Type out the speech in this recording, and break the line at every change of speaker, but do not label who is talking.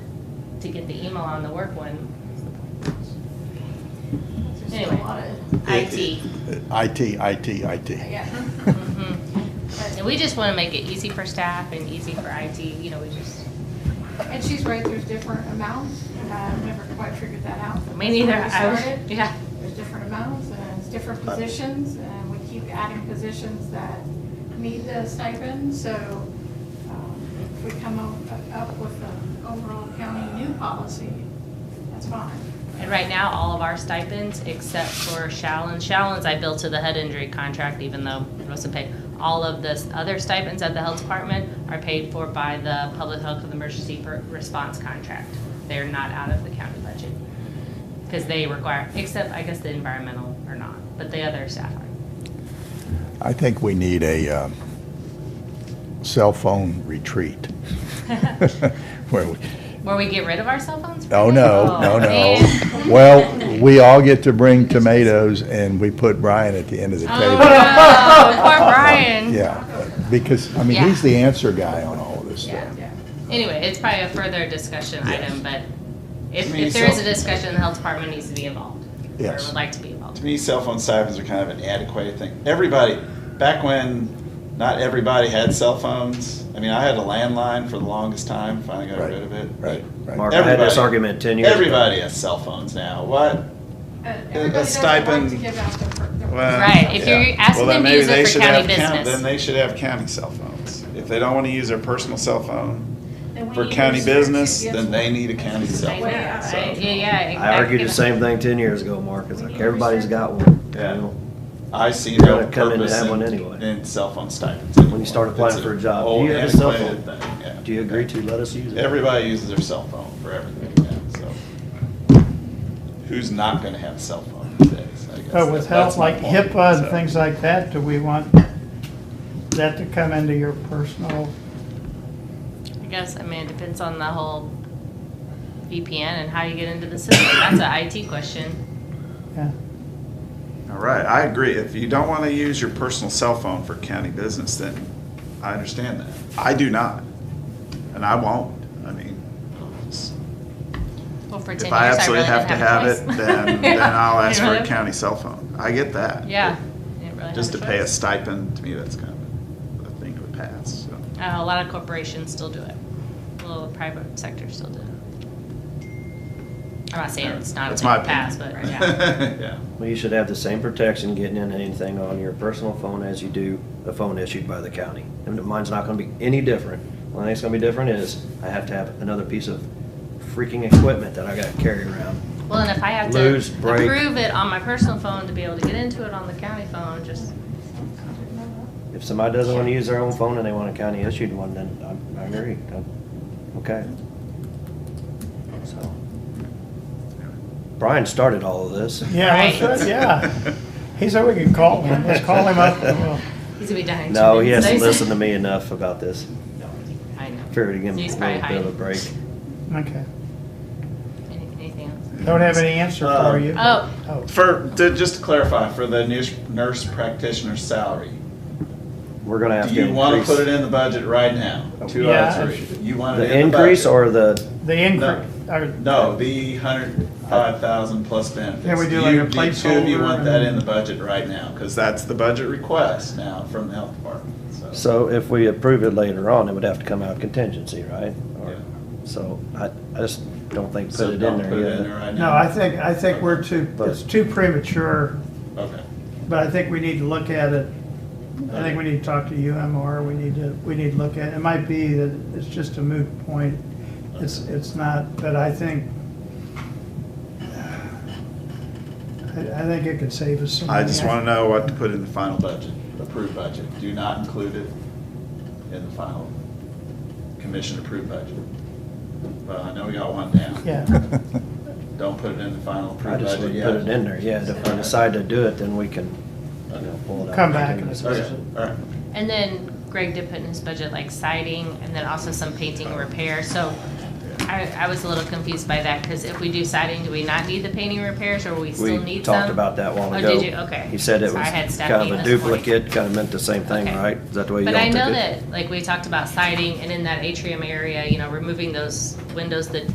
to get the email on the work one.
There's just a
Anyway.
lot of-
IT.
IT, IT, IT.
Yeah.
Mhm. And we just want to make it easy for staff and easy for IT, you know, we just,
And she's right, there's different amounts, and I've never quite figured that out. but
me
that's
neither,
where we
I
started.
was, yeah.
There's different amounts, and it's different
Uh,
positions, and we keep adding positions that need the stipend, so um, if we come o- up with an overall county new policy, that's fine.
And right now, all of our stipends, except for Shallon's, Shallon's I billed to the head injury contract, even though it wasn't paid. All of the other stipends at the health department are paid for by the public health and emergency per- response contract. They're not out of the county budget. Because they require, except I guess the environmental are not, but the other staff are.
I think we need a um, cell phone retreat. Where we,
Where we get rid of our cell phones? for
oh,
a
no,
day?
no,
Oh,
no.
man.
Well, we all get to bring tomatoes and we put Brian at the end of the
Oh,
table.
no, poor Brian.
Yeah, because, I mean,
Yeah.
he's the answer guy on all of this
Yeah.
stuff.
Yeah. Uh,
Anyway, it's probably a further discussion
Yes.
item, but if,
I mean,
if there is
so-
a discussion, the health department needs to be involved. Or
Yes.
would like to be
To
involved.
me, cell phone stipends are kind of an antiquated thing. Everybody, back when not everybody had cell phones, I mean, I had a landline for the longest time, finally got
Right,
rid of it.
right, right.
Mark, I had this argument 10 years ago.
Everybody has cell phones now. What?
Uh, Everybody doesn't like
stipend-
to give out their. per- their-
Well,
Right, if
yeah.
you're asking
Well,
them to
then maybe
use it
they
for
should
county
have coun-
business.
Then they should have county cell phones. If they don't want to use their personal cell phone
then we
for
need
county
restrictions
business,
against
then they need a county cell
Right,
Well,
phone.
yeah,
so-
right, Yeah, yeah.
I argued the
exactly.
same thing ten years ago, Mark. It's like, everybody's got one. you
Yeah.
know?
I see
You're
no
gonna come into
purpose
that one
in,
anyway.
in cell phone stipends.
When you start
anymore.
applying
It's
for a
an
job, do
old
you have a cell
antiquated
phone?
thing, yeah.
Do you agree to let us use it?
Everybody uses their cell phone for everything now, so. Who's not gonna have a cell phone these days, I guess?
But Oh, with
That's
health,
my
like
point,
HIPAA and
so.
things like that, do we want that to come into your personal?
I guess, I mean, it depends on the whole VPN and how you get into the system. That's an IT question.
yeah.
All right, I agree. If you don't wanna use your personal cell phone for county business, then I understand that. I do not, and I won't. I mean, it's-
Well, for ten
if
years,
I
I really
absolutely have
didn't
to
have
have
a
it,
choice.
then, then I'll
You
ask
know
for
what
a
I-
county cell phone. I get that.
Yeah. Didn't really
Just to
have
pay a
choice.
stipend, to me, that's kind of a thing of the past, so.
Uh, A lot of corporations still do it. A little private sector still do it. I'm not saying it's not a
That's
thing
my
to pass, but
opinion.
yeah.
Yeah.
Well, you should have the same protection getting into anything on your personal phone as you do a phone issued by the county. And mine's not gonna be any different. The only thing that's gonna be different is I have to have another piece of freaking equipment that I gotta carry around.
Well, and if I have to
Lose, break.
approve it on my personal phone to be able to get into it on the county phone, just,
If somebody doesn't wanna use their own phone and they want a county issued one, then I- I agree. I'm- Okay. So. Brian started all of this.
Yeah,
Right.
we should, yeah. He said we could call him, let's call him up. and we'll-
he's gonna be dying. in two
No, he
minutes.
hasn't listened to me enough about this.
I know.
Figured to give him
He's
a
probably
little bit of a
hiding.
break.
Okay,
Any- Anything else?
don't have any answer for you.
Oh.
Oh.
Um, For, to, just to clarify, for the nurse- nurse practitioner's salary,
We're gonna have
do
to
you wanna
increase
put it in the budget right now? Two
Yeah.
oh three, you want it
the
in the
increase
budget?
or the
The
No.
increase, or,
No, the hundred five thousand plus benefits.
Can we do
You-
like a
The two of you
placeholder
want that
and-
in the budget right now, cause that's the budget request now from the health department, so.
So if we approve it later on, it would have to come out of contingency, right? Or-
Yeah.
So I, I just don't think
So
put it in
don't put it in
there
there
yet.
right now.
no, I think, I think we're too, it's too premature,
Okay.
but I think we need to look at it. I think we need to talk to UMR, we need to, we need to look at, it might be that it's just a moot point. It's, it's not, but I think, I, I think it could save us some.
I just
money.
wanna know what to put in the final budget, approved budget. Do not include it in the final commission-approved budget. But I know we got one down.
Yeah.
Don't put it in the final
I
approved
just
budget
would
yet.
put it in there, yeah, if we decide to do it, then we can, you know, pull it out.
Come back and
Okay, all right.
And then Greg did put in his budget like siding and then also some painting and repair, so I, I was a little confused by that, cause if we do siding, do we not need the painting repairs or we still
We
need some?
talked about that while
Oh,
ago.
did you? Okay.
He said it
So I
was
had staff
kind of a
meeting this morning.
duplicate, kind of meant the same thing,
Okay.
right? Is that the way you all
But I
took it?
know that, like, we talked about siding and in that atrium area, you know, removing those windows that